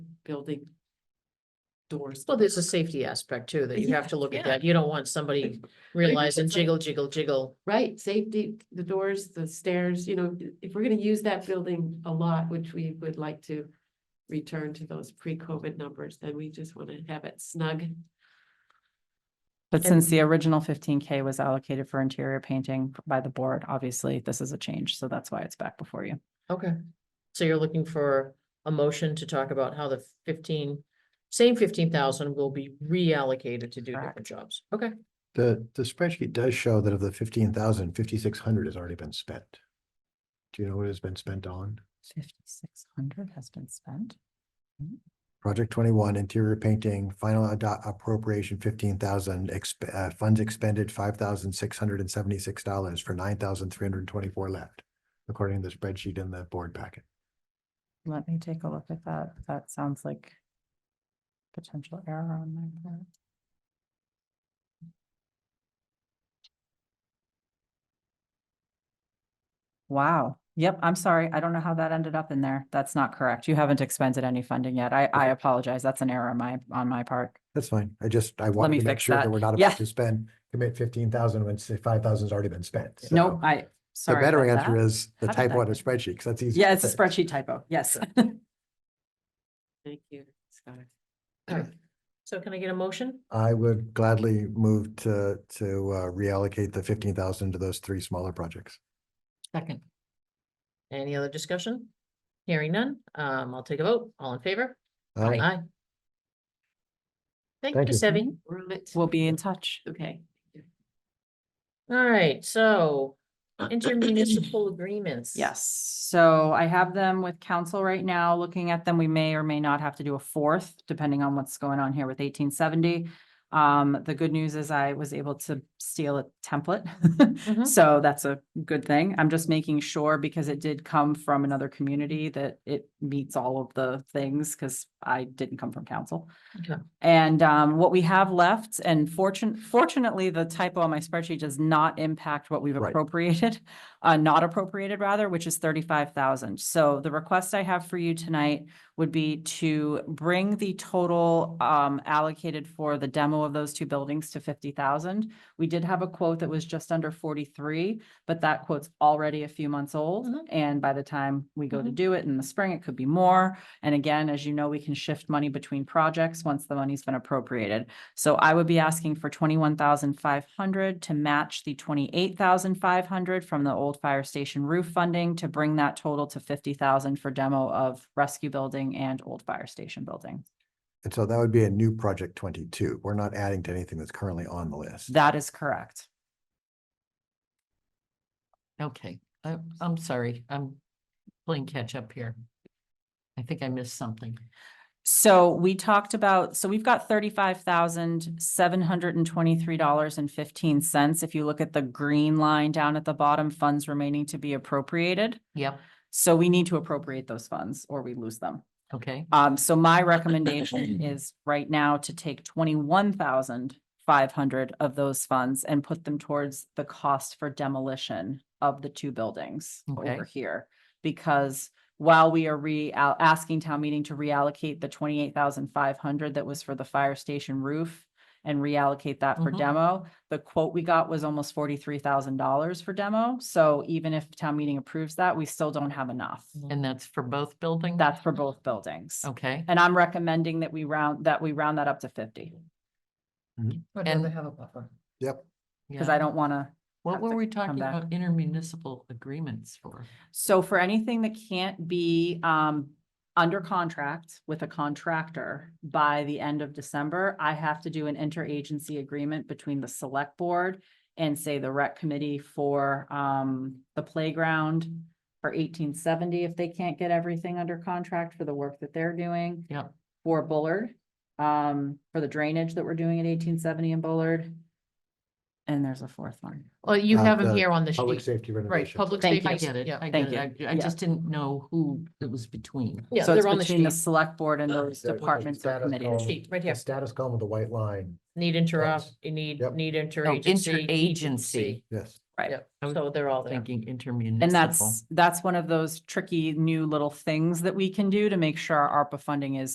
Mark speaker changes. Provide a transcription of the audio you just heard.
Speaker 1: building doors.
Speaker 2: Well, there's a safety aspect too, that you have to look at
Speaker 1: Yeah.
Speaker 2: that. You don't want somebody realizing
Speaker 1: it's like-
Speaker 2: jiggle, jiggle, jiggle.
Speaker 1: Right, safety, the doors, the stairs, you know, if we're gonna use that building a lot, which we would like to return to those pre-COVID numbers, then we just wanna have it snug.
Speaker 3: But
Speaker 2: And-
Speaker 3: since the original fifteen K was allocated for interior painting by the board, obviously this is a change, so that's why it's back before you.
Speaker 2: Okay. So you're looking for a motion to talk about how the fifteen, same fifteen thousand will be reallocated to do different
Speaker 3: Correct.
Speaker 2: jobs. Okay,
Speaker 4: The, the spreadsheet does show that of the fifteen thousand, fifty-six hundred has already been spent. Do you know what has been spent on?
Speaker 3: Fifty-six hundred has been spent.
Speaker 4: Project twenty-one, interior painting, final ado- appropriation fifteen thousand, exp- uh, funds expended five thousand six hundred and seventy-six dollars for nine thousand three hundred and twenty-four left. According to the spreadsheet in the board packet.
Speaker 3: Let me take a look at that. That sounds like potential error on my part. Wow. Yep, I'm sorry. I don't know how that ended up in there. That's not correct. You haven't expended any funding yet. I, I apologize. That's an error on my, on my part.
Speaker 4: That's fine. I just, I wanted
Speaker 3: me
Speaker 4: to make
Speaker 3: fix
Speaker 4: sure that
Speaker 3: that.
Speaker 4: we're not
Speaker 3: Yeah.
Speaker 4: about to spend, commit fifteen thousand when five thousand's already been spent.
Speaker 3: No,
Speaker 4: So
Speaker 3: I,
Speaker 4: The
Speaker 3: sorry.
Speaker 4: better
Speaker 3: about
Speaker 4: answer
Speaker 3: that.
Speaker 4: is the
Speaker 3: How did
Speaker 4: typo
Speaker 3: that
Speaker 4: on a
Speaker 3: get-
Speaker 4: spreadsheet, because that's easy.
Speaker 3: Yeah, it's a
Speaker 4: to fix.
Speaker 3: spreadsheet typo. Yes.
Speaker 1: Thank you, Scott.
Speaker 2: so can I get a motion?
Speaker 4: I would gladly move to, to uh, reallocate the fifteen thousand to those three smaller projects.
Speaker 2: Second. Any other discussion? Hearing none, um, I'll take a vote. All in favor?
Speaker 4: Aye.
Speaker 2: Aye. Thank you,
Speaker 4: Thank you.
Speaker 2: Debbie.
Speaker 1: We're on it.
Speaker 3: We'll be in touch.
Speaker 1: Okay.
Speaker 2: All right, so intermunicipal agreements.
Speaker 3: Yes, so I have them with council right now, looking at them, we may or may not have to do a fourth, depending on what's going on here with eighteen seventy. Um, the good news is I was able to steal a template,
Speaker 2: Mhm.
Speaker 3: so that's a good thing. I'm just making sure because it did come from another community that it meets all of the things, because I didn't come from council.
Speaker 2: Okay.
Speaker 3: And um, what we have left, and fortune, fortunately, the typo on my spreadsheet does not impact what we've
Speaker 4: Right.
Speaker 3: appropriated, uh, not appropriated rather, which is thirty-five thousand. So the request I have for you tonight would be to bring the total um, allocated for the demo of those two buildings to fifty thousand. We did have a quote that was just under forty-three, but that quote's already a few months old.
Speaker 2: Mhm.
Speaker 3: And by the time we go to do it in the spring, it could be more. And again, as you know, we can shift money between projects once the money's been appropriated. So I would be asking for twenty-one thousand five hundred to match the twenty-eight thousand five hundred from the old fire station roof funding to bring that total to fifty thousand for demo of rescue building and old fire station building.
Speaker 4: And so that would be a new project twenty-two. We're not adding to anything that's currently on the list.
Speaker 3: That is correct.
Speaker 1: Okay, I, I'm sorry, I'm playing catch up here. I think I missed something.
Speaker 3: So we talked about, so we've got thirty-five thousand, seven hundred and twenty-three dollars and fifteen cents. If you look at the green line down at the bottom, funds remaining to be appropriated.
Speaker 1: Yep.
Speaker 3: So we need to appropriate those funds or we lose them.
Speaker 1: Okay.
Speaker 3: Um, so my recommendation is right now to take twenty-one thousand five hundred of those funds and put them towards the cost for demolition of the two buildings
Speaker 1: Okay.
Speaker 3: over here. Because while we are re, al- asking town meeting to reallocate the twenty-eight thousand five hundred that was for the fire station roof and reallocate that for
Speaker 1: Mhm.
Speaker 3: demo, the quote we got was almost forty-three thousand dollars for demo. So even if town meeting approves that, we still don't have enough.
Speaker 2: Mm-hmm.
Speaker 1: And that's for both buildings?
Speaker 3: That's for both buildings.
Speaker 1: Okay.
Speaker 3: And I'm recommending that we round, that we round that up to fifty,
Speaker 2: I'd
Speaker 1: And-
Speaker 2: rather have a buffer.
Speaker 4: Yep.
Speaker 3: because
Speaker 1: yeah.
Speaker 3: I don't want to.
Speaker 1: What
Speaker 3: have
Speaker 1: were
Speaker 3: to
Speaker 1: we talking
Speaker 3: back.
Speaker 1: about intermunicipal agreements for?
Speaker 3: So for anything that can't be um under contract with a contractor by the end of December, I have to do an interagency agreement between the select board and say the rec committee for um the playground for eighteen seventy, if they can't get everything under contract for the work that they're doing.
Speaker 1: Yep.
Speaker 3: For Bullard, um, for the drainage that we're doing at eighteen seventy in Bullard. And there's a fourth one.
Speaker 2: Well, you
Speaker 4: Uh,
Speaker 2: have them
Speaker 4: the
Speaker 2: here on the
Speaker 4: Public
Speaker 2: sheet.
Speaker 4: safety
Speaker 2: Right,
Speaker 4: renovation.
Speaker 2: public
Speaker 3: Thank
Speaker 2: safety.
Speaker 3: you.
Speaker 1: I get it.
Speaker 2: Yeah,
Speaker 1: I
Speaker 3: Thank
Speaker 1: get it.
Speaker 3: you.
Speaker 1: I, I
Speaker 3: Yeah.
Speaker 1: just didn't know who it was between.
Speaker 2: yeah,
Speaker 3: So it's
Speaker 2: they're on the
Speaker 3: between the
Speaker 2: sheet.
Speaker 3: select board and those
Speaker 4: There's a
Speaker 3: departments or
Speaker 4: status
Speaker 3: committees.
Speaker 4: column-
Speaker 2: Sheet, right
Speaker 4: the
Speaker 2: here.
Speaker 4: Status column with the white line,
Speaker 2: Need interop,
Speaker 4: Yes.
Speaker 2: you need,
Speaker 4: Yep.
Speaker 2: need
Speaker 1: No,
Speaker 2: interagency.
Speaker 1: interagency.
Speaker 4: yes.
Speaker 2: Yep,
Speaker 1: I was
Speaker 2: so they're all there.
Speaker 1: Thinking intermunicipal.
Speaker 3: And that's, that's one of those tricky new little things that we can do to make sure our ARPA funding is